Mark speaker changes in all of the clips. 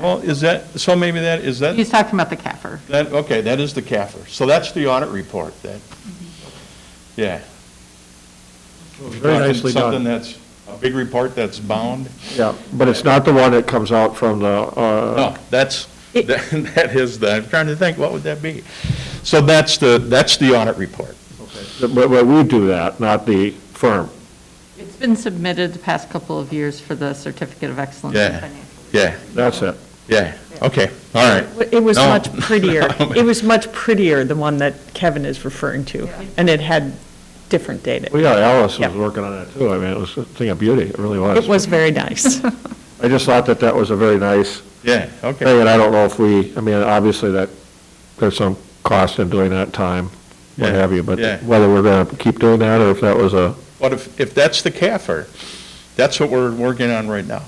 Speaker 1: Well, Oh, is that, so maybe that, is that,
Speaker 2: He's talking about the CAFR.
Speaker 1: that, okay, that is the CAFR. So that's the audit report, that, yeah.
Speaker 3: Very nicely
Speaker 1: Something
Speaker 3: done.
Speaker 1: that's, a big report that's bound?
Speaker 3: Yeah, but it's not the one that comes out from the, uh,
Speaker 1: No, Oh, that's, that that is the, I'm trying to think, what would that be? So that's the, that's the audit report.
Speaker 3: but, but we do that, not the firm.
Speaker 2: It's been submitted the past couple of years for the Certificate of Excellence. in
Speaker 1: Yeah.
Speaker 2: Financial.
Speaker 1: Yeah,
Speaker 3: That's it.
Speaker 1: yeah, okay, all right. Oh.
Speaker 4: It was
Speaker 1: No.
Speaker 4: much prettier. It was much prettier, the one that Kevin is referring to, and it had different data.
Speaker 3: Well, yeah, Alice was
Speaker 4: Yep.
Speaker 3: working on that too. I mean, it was a thing of beauty, it really was.
Speaker 4: It was very nice.
Speaker 3: I just thought that that was a very nice
Speaker 1: Yeah, okay.
Speaker 3: thing, and I don't know if we, I mean, obviously that, there's some cost in doing that time, what
Speaker 1: Yeah,
Speaker 3: have you, but
Speaker 1: yeah.
Speaker 3: whether we're going to keep doing that or if that was a,
Speaker 1: But if, if that's the CAFR, that's what we're working on right now.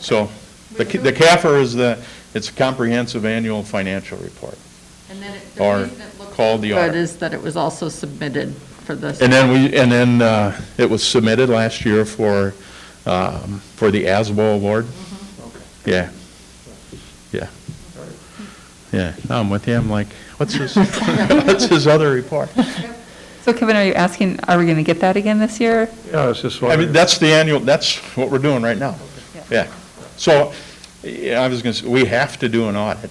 Speaker 1: So, the the CAFR is the, it's a comprehensive annual financial report.
Speaker 2: And then it-
Speaker 1: Or
Speaker 2: the reason it looked
Speaker 1: called the
Speaker 2: good
Speaker 1: audit.
Speaker 2: is that it was also submitted for the.
Speaker 1: And then we, and then uh, it was submitted last year for, um, for the ASBO award. Yeah. Yeah. Yeah, no, I'm with you, I'm like, what's his, what's his other report?
Speaker 5: So Kevin, are you asking, are we going to get that again this year?
Speaker 3: yeah, it's just.
Speaker 1: I mean, that's the annual, that's what we're doing right now. Yeah. So, yeah, I was going to say, we have to do an audit.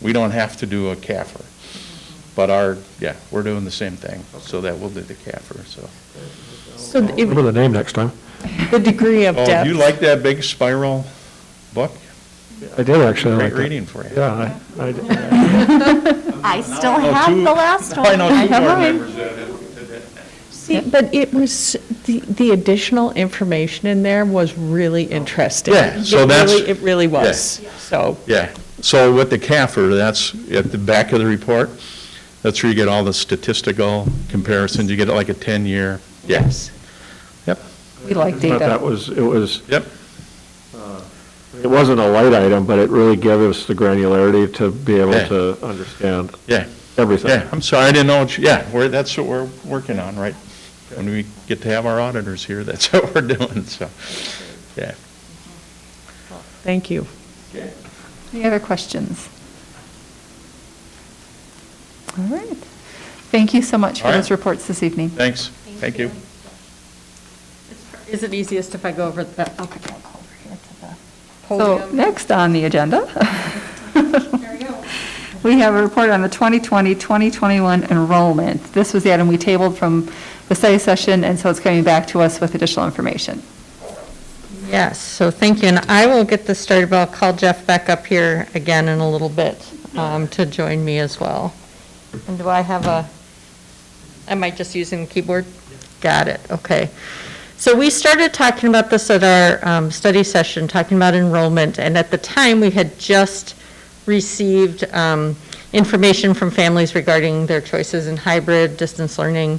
Speaker 1: We don't have to do a CAFR. But our, yeah, we're doing the same thing, so that we'll do the CAFR, so.
Speaker 4: So
Speaker 3: Remember
Speaker 4: it-
Speaker 3: the name next time.
Speaker 4: the degree of
Speaker 1: Oh,
Speaker 4: depth.
Speaker 1: do you like that big spiral book?
Speaker 3: I did actually.
Speaker 1: Great
Speaker 3: like that.
Speaker 1: reading for you.
Speaker 3: Yeah, I, I,
Speaker 6: I still
Speaker 1: know
Speaker 6: have
Speaker 1: two-
Speaker 6: the last
Speaker 1: I
Speaker 6: one.
Speaker 1: know two board
Speaker 5: mine.
Speaker 1: members that have- that-
Speaker 4: See, but it was, the, the additional information in there was really interesting.
Speaker 1: Yeah, so
Speaker 4: It
Speaker 1: that's-
Speaker 4: really- It really was, so.
Speaker 1: Yeah, so with the CAFR, that's at the back of the report, that's where you get all the statistical comparisons, you get like a 10-year, yes. Yep,
Speaker 5: We like
Speaker 3: thought that
Speaker 5: data.
Speaker 3: was, it was,
Speaker 1: yep,
Speaker 3: it wasn't a light item, but it really gave us the granularity to be able
Speaker 1: Yeah.
Speaker 3: to understand
Speaker 1: yeah,
Speaker 3: everything.
Speaker 1: yeah, I'm sorry, I didn't know, what you- yeah, we're, that's what we're working on, right? When we get to have our auditors here, that's what we're doing, so, yeah.
Speaker 4: Thank you.
Speaker 5: Any other questions? All right. Thank you so much for
Speaker 1: All right.
Speaker 5: those reports this evening.
Speaker 1: Thanks, thank you.
Speaker 2: Is it easiest if I go over the, okay, I'll go over here to the podium?
Speaker 5: So next on the agenda. We have a report on the 2020-2021 enrollment. This was the item we tabled from the study session, and so it's coming back to us with additional information.
Speaker 7: Yes, so thank you, and I will get this started, but I'll call Jeff back up here again in a little bit um, to join me as well. And do I have a, am I just using the keyboard? Got it, okay. So we started talking about this at our um, study session, talking about enrollment, and at the time, we had just received um, information from families regarding their choices in hybrid, distance learning.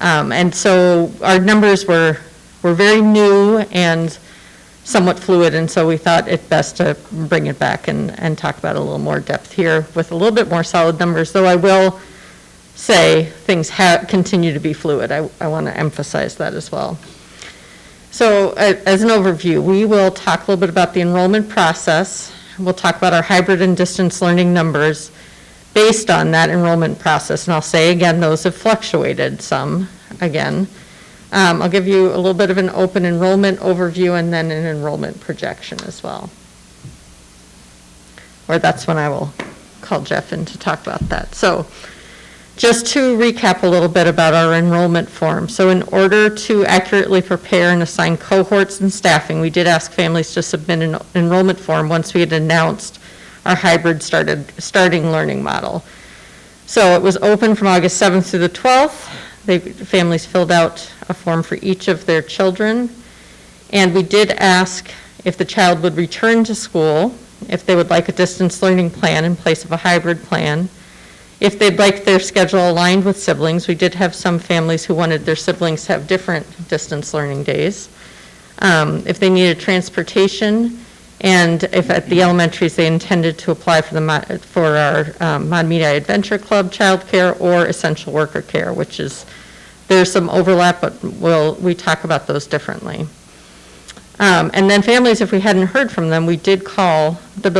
Speaker 7: Um, And so our numbers were, were very new and somewhat fluid, and so we thought it best to bring it back and, and talk about it a little more depth here with a little bit more solid numbers, though I will say things ha continue to be fluid. I, I want to emphasize that as well. So a- as an overview, we will talk a little bit about the enrollment process. We'll talk about our hybrid and distance learning numbers based on that enrollment process. And I'll say again, those have fluctuated some, again. Um, I'll give you a little bit of an open enrollment overview and then an enrollment projection as well. Or that's when I will call Jeff in to talk about that. So just to recap a little bit about our enrollment form. So in order to accurately prepare and assign cohorts and staffing, we did ask families to submit an enrollment form once we had announced our hybrid started, starting learning model. So it was open from August 7th through the 12th. They, families filled out a form for each of their children. And we did ask if the child would return to school, if they would like a distance learning plan in place of a hybrid plan, if they'd like their schedule aligned with siblings. We did have some families who wanted their siblings to have different distance learning days. Um, If they needed transportation, and if at the elementaries, they intended to apply for the, mo- for our um, Mod Media Adventure Club childcare or essential worker care, which is, there's some overlap, but we'll, we talk about those differently. Um, Um, And then families, if we hadn't heard from them, we did call the building